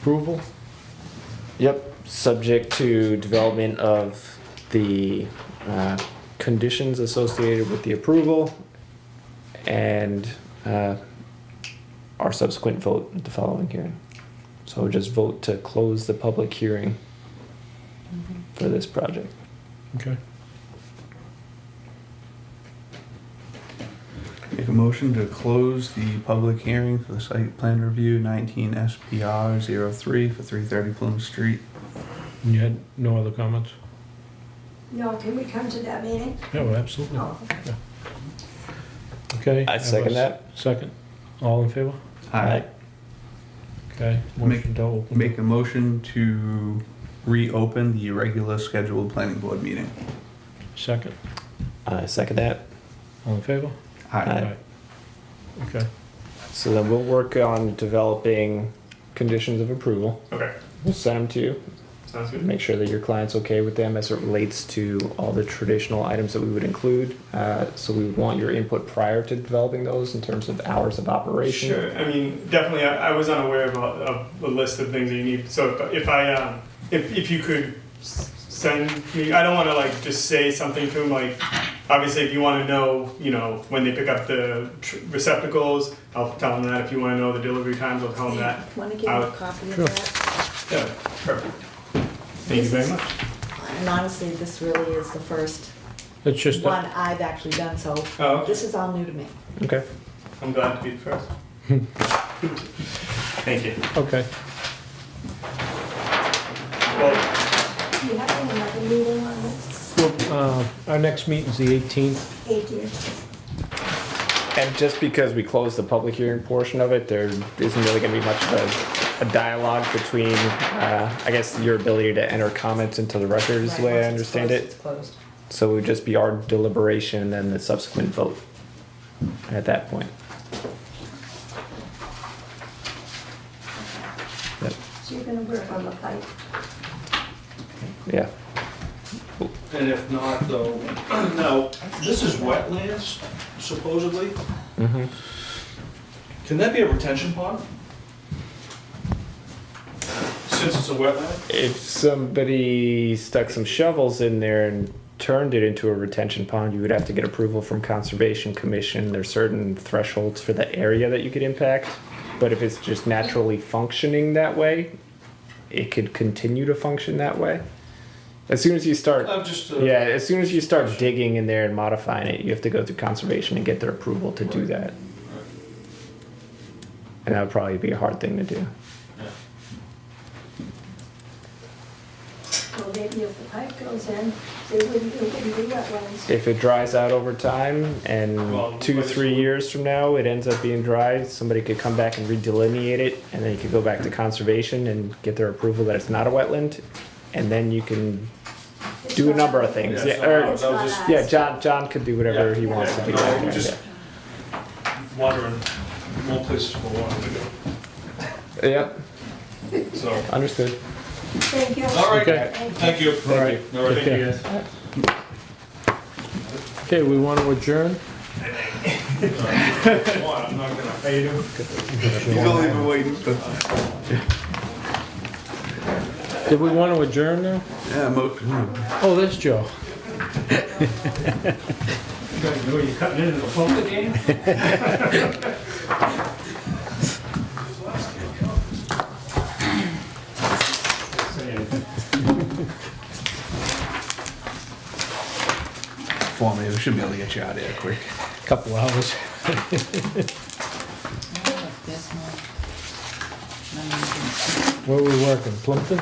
approval? Yep, subject to development of the uh, conditions associated with the approval and uh, our subsequent vote at the following hearing. So just vote to close the public hearing for this project. Okay. Make a motion to close the public hearing for the site plan review nineteen SPR 3 for three thirty Plum Street. You had no other comments? No, can we come to that meeting? Oh, No, absolutely. No. Okay. I have second that. a s- Second. All in favor? Aye. Okay. Make- Motion to open. Make a motion to reopen the regular scheduled planning board meeting. Second. I second that. All in favor? Aye. Aye. Okay. So then we'll work on developing conditions of approval. Okay, We'll send them to you. sounds good. Make sure that your client's okay with them as it relates to all the traditional items that we would include. Uh, So we would want your input prior to developing those in terms of hours of operation. Sure. I mean, definitely, I, I was unaware of, a- of the list of things that you need. So if, if I, um, if, if you could s- send me, I don't want to like just say something to them. Like, obviously, if you want to know, you know, when they pick up the tr- receptacles, I'll tell them that. If you want to know the delivery times, I'll tell them that. Want to give you I'll- a copy of Sure. that? Yeah, perfect. Thank you very much. And honestly, this really is the first It's just, one a- I've actually done, so Oh, okay. this is all new to me. Okay. I'm glad to be the first. Thank you. okay. Well, Do you have another meeting on this? Well, uh, Our next meeting's the 18th. Eighteenth. And just because we closed the public hearing portion of it, there isn't really going to be much of a- a dialogue between, uh, I guess, your ability to enter comments into the record is the way I Right, once it's understand closed, it. It's closed. So it would just be our deliberation and then the subsequent vote at that point. So you're gonna work on the pipe. Yeah. And if not, though, now, this is wetlands supposedly. Mhm. Can that be a retention pond? Since it's a wetland? If somebody stuck some shovels in there and turned it into a retention pond, you would have to get approval from Conservation Commission. There's certain thresholds for the area that you could impact. But if it's just naturally functioning that way, it could continue to function that way. As soon as you start, I'm just, uh, yeah, as soon as you start digging in there and modifying it, you have to go through Conservation and get their approval to do that. And that would probably be a hard thing to do. Well, maybe if the pipe goes in, it wouldn't, it wouldn't be wetlands. if it dries out over time and Well, two but it's- three years from now it ends up being dry somebody could come back and redelineate it and then you could go back to conservation and get their approval that it's not a wetland and then you can It's do a not- number of things yeah, Yeah, or, It's That was not just- us. yeah john john could do whatever Yeah. he wants Yeah, to do no, down we there, just- Wandering, more places for water to go, yeah. yeah so. understood Thank you. All right, Okay. thank you. All right. All right, Take thank you guys. Okay, we want to adjourn? come on, I'm not gonna. How you doing? He's only been waiting for, Did we want to adjourn now? yeah, mo- hmm. Oh, that's Joe. You guys know you're cutting into the phone again? Saying. for me, we should be able to get you out of here quick. Couple hours. This one. Where were we working? Plumpton?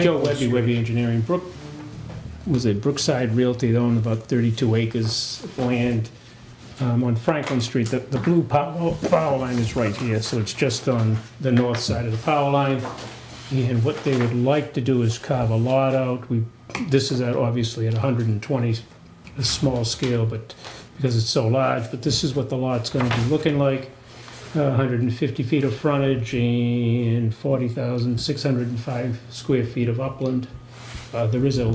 Joe Webby, Webby Engineering, Brook, was it Brookside Realty, they own about 32 acres of land um, on Franklin Street. The the blue pow- oh, power line is right here, so it's just on the north side of the power line. And what they would like to do is carve a lot out. We, this is at- obviously at 120, a small scale, but because it's so large, but this is what the lot's going to be looking like. Uh, 150 feet of frontage and 40,605 square feet of upland. Uh, There is a